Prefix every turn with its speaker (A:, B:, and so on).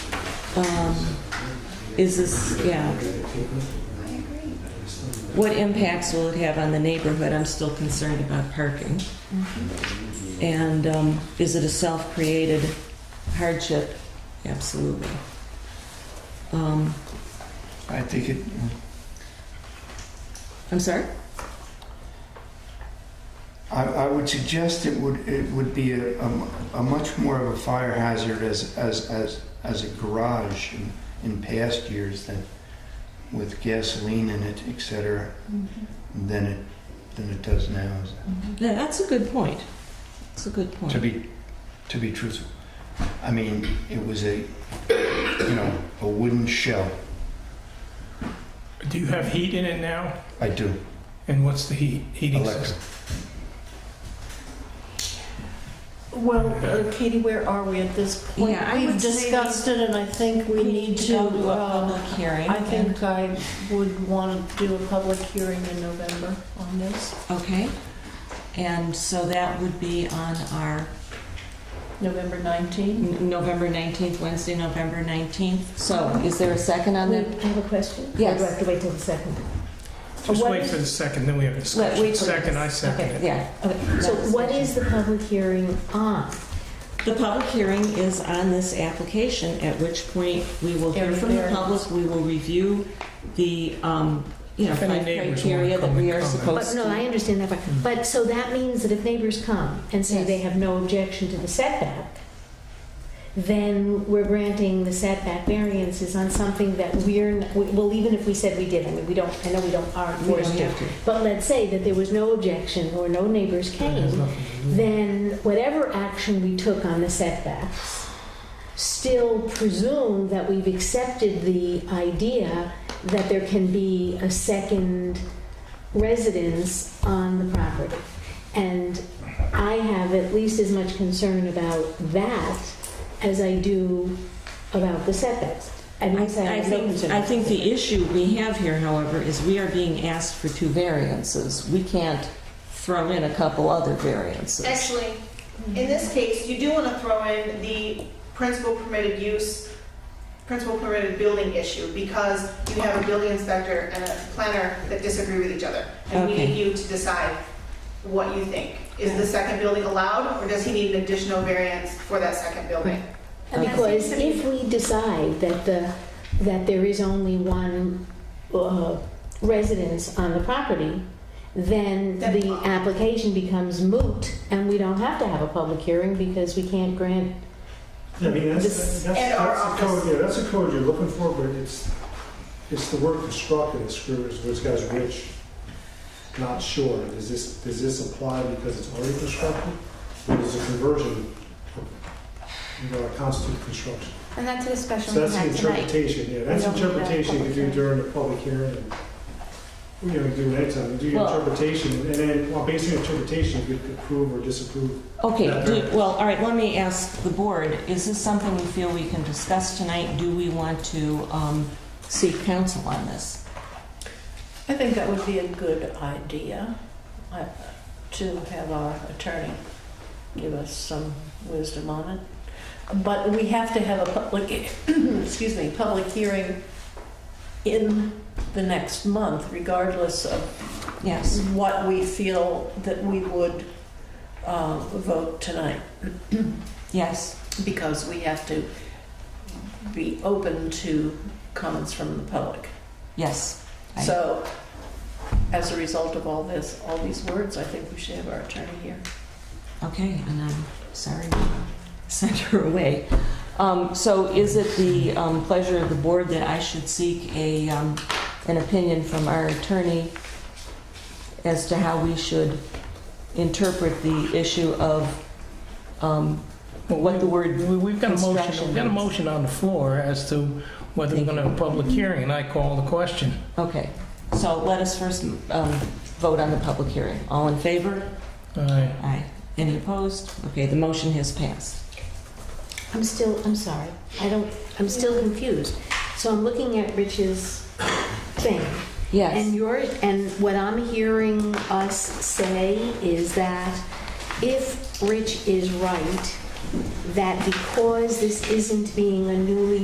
A: um, is this, yeah. What impacts will it have on the neighborhood? I'm still concerned about parking. And um, is it a self-created hardship? Absolutely. Um,
B: I think it,
A: I'm sorry?
B: I, I would suggest it would, it would be a, a mu- a much more of a fire hazard as, as, as, as a garage in, in past years than with gasoline in it, et cetera, than it, than it does now.
A: Yeah, that's a good point. That's a good point.
B: To be, to be truthful. I mean, it was a, you know, a wooden shell.
C: Do you have heat in it now?
B: I do,
C: And what's the heat, heating
B: Alexa.
C: system?
D: Well, uh, Katie, where are we at this point?
A: Yeah, I
D: We've
A: would say
D: discussed it, and I think we need to,
A: go to a
D: uh,
A: public hearing.
D: I think I would want to do a public hearing in November on this,
A: Okay. And so that would be on our
D: November 19.
A: N- November 19th, Wednesday, November 19th. So is there a second on that?
E: I have a question.
A: Yes.
E: Or do I have to wait till the second?
C: Just
E: What
C: wait
E: is-
C: for the second, then we have discussion.
A: wait for
C: Second, I
E: this.
C: second
E: Okay.
C: it.
A: Yeah.
E: Okay, so what is the public hearing on?
A: The public hearing is on this application, at which point we will hear from the
D: Everywhere.
A: public, we will review the, um, you know,
C: If any
A: five
C: neighbors wanna
A: criteria that
C: come
A: we
C: and
A: are
C: comment.
A: supposed
E: But
A: to.
E: no, I understand that part. But so that means that if neighbors come and say
A: Yes.
E: they have no objection to the setback, then we're granting the setback variances on something that we're, n- we- well, even if we said we did, I mean, we don't, I know we don't, aren't
A: We
E: forced
A: don't
E: to.
A: have to.
E: But let's say that there was no objection or no neighbors
C: It has
A: Mm-hmm.
E: came,
C: nothing to do with it.
E: then whatever action we took on the setbacks still presume that we've accepted the idea that there can be a second residence on the property. And I have at least as much concern about that as I do about the setbacks. I
A: I
E: mean, I
A: I
E: have no
A: think,
E: concern
A: I
E: about
A: think
E: the
A: the issue we have here, however, is we are being asked for two variances. We can't throw in a couple other variances.
F: Actually, in this case, you do want to throw in the principal permitted use, principal permitted building issue, because you have a building inspector and a planner that disagree with each other. And we
A: Okay.
F: need you to decide what you think. Is the second building allowed, or does he need an additional variance for that second building?
E: Because if we decide that the, that there is only one uh, residence on the property, then
F: Then-
E: the application becomes moot, and we don't have to have a public hearing because we can't grant,
G: I mean, that's,
E: This-
G: that's,
F: And our
G: that's the
F: office.
G: code, yeah, that's the code you're looking for, but it's, it's the word constructed that screws, this guy's rich, not sure. Does this, does this apply because it's already constructed? Or does a conversion, you know, constitute construction?
H: And that's a discussion
G: So
H: we
G: that's the
H: had tonight.
G: interpretation, yeah,
H: We
G: that's
H: don't need that
G: interpretation you can
H: public
G: do during the public hearing. and, You know, you do it anytime, you do your
A: Well-
G: interpretation, and then, well, based on your interpretation, you could approve or disapprove.
A: Okay,
G: That
A: do-
G: variance.
A: well, all right, let me ask the board, is this something we feel we can discuss tonight? Do we want to um, seek counsel on this?
D: I think that would be a good idea, I- to have our attorney give us some wisdom on it. But we have to have a public, excuse me, public hearing in the next month, regardless of
A: Yes,
D: what we feel that we would uh, vote tonight,
A: yes,
D: because we have to be open to comments from the public.
A: yes. I-
D: So, as a result of all this, all these words, I think we should have our attorney here.
A: Okay, and I'm sorry we sent her away. Um, So is it the um, pleasure of the board that I should seek a, um, an opinion from our attorney as to how we should interpret the issue of um,
C: Well,
A: what the word
C: we- We've got a motion,
A: construction
C: we've got a
A: means. motion
C: motion on the floor as to whether we're
A: Thank
C: going to have a public hearing, and I call the question.
A: Okay, so let us first um, vote on the public hearing. All in favor?
C: Aye.
A: Aye. Any opposed? Okay, the motion has passed.
E: I'm still, I'm sorry, I don't, I'm still confused. So I'm looking at Rich's thing, And
A: Yes,
E: your, and what I'm hearing us say is that if Rich is right, that because this isn't being a newly